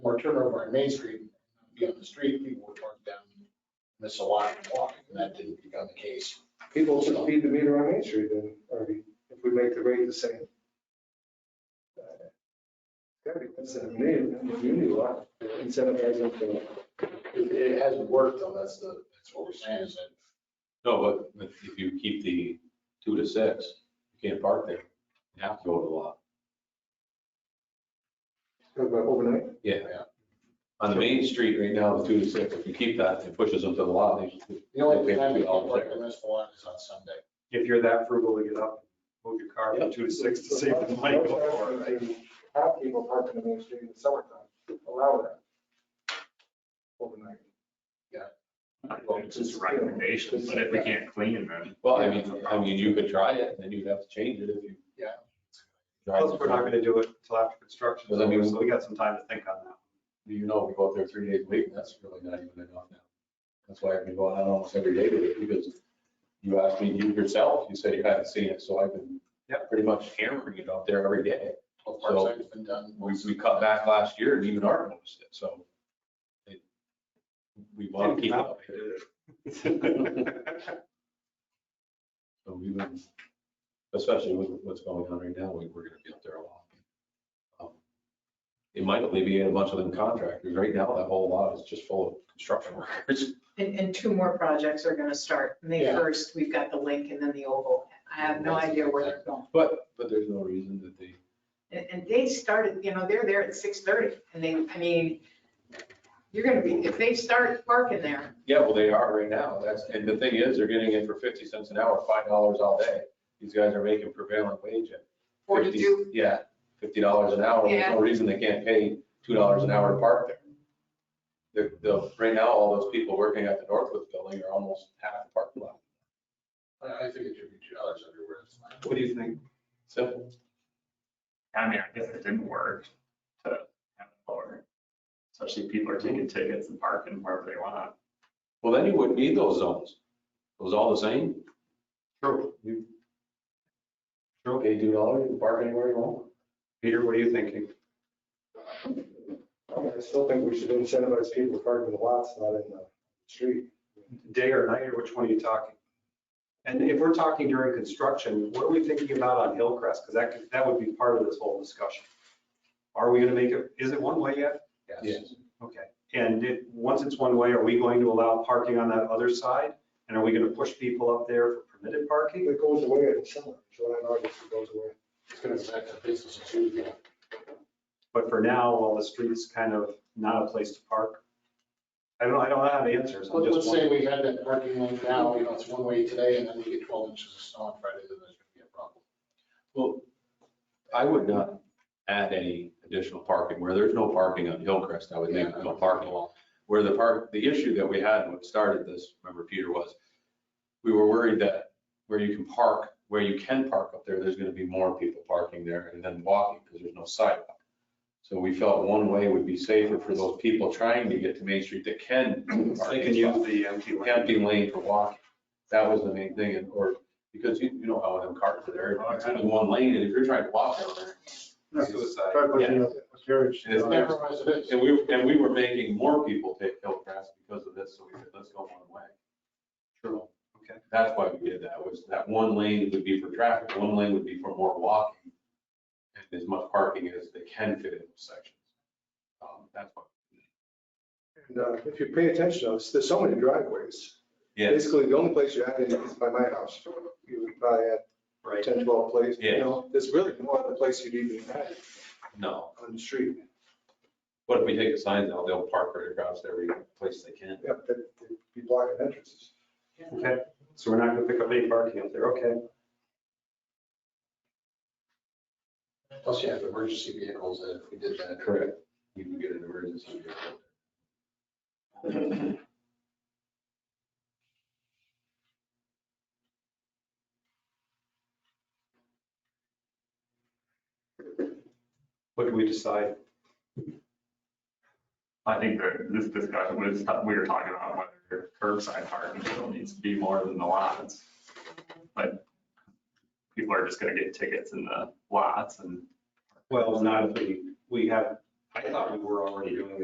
turn over on Main Street, be on the street, people were torn down, miss a lot and walk, and that didn't become the case. People should feed the meter on Main Street then, or if we make the rate the same. Uh, Gotta be incentive, new, new law, incentivizing for. It, it hasn't worked though, that's the, that's what we're saying is that No, but if- if you keep the two to six, you can't park there. You have to go to the lot. Overnight? On the main street right now, the two to six, if you keep that, it pushes them to the lot. They- the only they pay time we two can dollars work there. on this one is on Sunday. If you're that frugal to get up, move your car from two to six to save the money. before. Have people parking on Main Street in the summertime, allow that. Overnight. Well, it's just a recommendation, but if we can't clean them, Well, I mean, I mean, you could try it, and then you'd have to change it if you. Yeah. Drive Plus, the we're not car. gonna do it until after construction, Does that mean- so we got some time to think on that. You know, we go out there three days a week, and that's really not even enough now. That's why I've been going out almost every day with it, because you asked me, you yourself, you said you hadn't seen it, so I've been Yep. pretty much hammering it out there every day. Well, Parkside's been done. We, we cut back last year and even Art noticed it, so. it- We want to keep it up. So we would, especially with what's going on right now, we, we're gonna be up there a lot. Um, It might alleviate a bunch of them contractors. Right now, that whole lot is just full of construction workers. And, and two more projects are gonna start. May Yeah. first, we've got the link and then the oval. I have no idea where they're going. But, but there's no reason that they, And, and they started, you know, they're there at six thirty and they, I mean, you're gonna be, if they start parking there, yeah, well, they are right now. That's, and the thing is, they're getting it for fifty cents an hour, five dollars all day. These guys are making prevailing wage at 50 forty-two, Yeah, fifty dollars an hour, there's no reason they can't pay two dollars an hour to park there. The, the, right now, all those people working at the Northwood building are almost half the parking lot, I, I think it should be two dollars everywhere. It's fine. What do you think? simple. I mean, I guess it didn't work to have it lower. Especially if people are taking tickets and parking wherever they want. Well, then you wouldn't need those zones, it was all the same. True. You True, pay two dollars, you can park anywhere you want. Peter, what are you thinking? I still think we should incentivize people to park in the lots, not in the street. Day or night, or which one are you talking? And if we're talking during construction, what are we thinking about on Hillcrest? Because that, could- that would be part of this whole discussion. Are we gonna make it, is it one way yet? Yes. Okay, and it, once it's one way, are we going to allow parking on that other side? And are we gonna push people up there for permitted parking? It goes away in summer, July and August, it goes away. It's gonna be back to business as usual. But for now, while the street's kind of not a place to park, I don't, I don't have answers. I'm Let's just say wondering. we had that parking lane now, you know, it's one way today and then we get twelve inches of snow on Friday, then there's gonna be a problem. Well, I would not add any additional parking, where there's no parking on Hillcrest, I would make no parking lot. where the park, the issue that we had when we started this, remember Peter, was we were worried that where you can park, where you can park up there, there's gonna be more people parking there and then walking because there's no sidewalk. So we felt one way would be safer for those people trying to get to Main Street that can. park. They can use the empty lane. Empty lane for walking. That was the main thing and, or, because you, you know how them cars are there, it's only one lane and if you're trying to walk down there, Suicide. Try putting up a carriage. It is It's never as it is. And we, and we were making more people take Hillcrest because of this, so we said, let's go one way. True. Okay. That's why we did that, was that one lane would be for traffic, one lane would be for more walking. And as much parking as they can fit in those sections. Um, that's why. And, uh, If you pay attention, there's- there's so many driveways. Yes, Basically, the only place you have any is by my house. You would probably add Right. 10, 12 places, you Yeah. know, there's really no other place you'd even add no, on the street. but if we take the signs out, they'll park right across every place they can. Yep, that- that'd be blocking entrances. Okay, so we're not gonna pick up any parking up there, okay? Plus you have emergency vehicles that if we did that. Correct. You can get an emergency vehicle. What do we decide? I think that this discussion was, we were talking about whether curbside parking still needs to be more than the lots. But people are just gonna get tickets in the lots and Well, not if we, we have, I thought we were already doing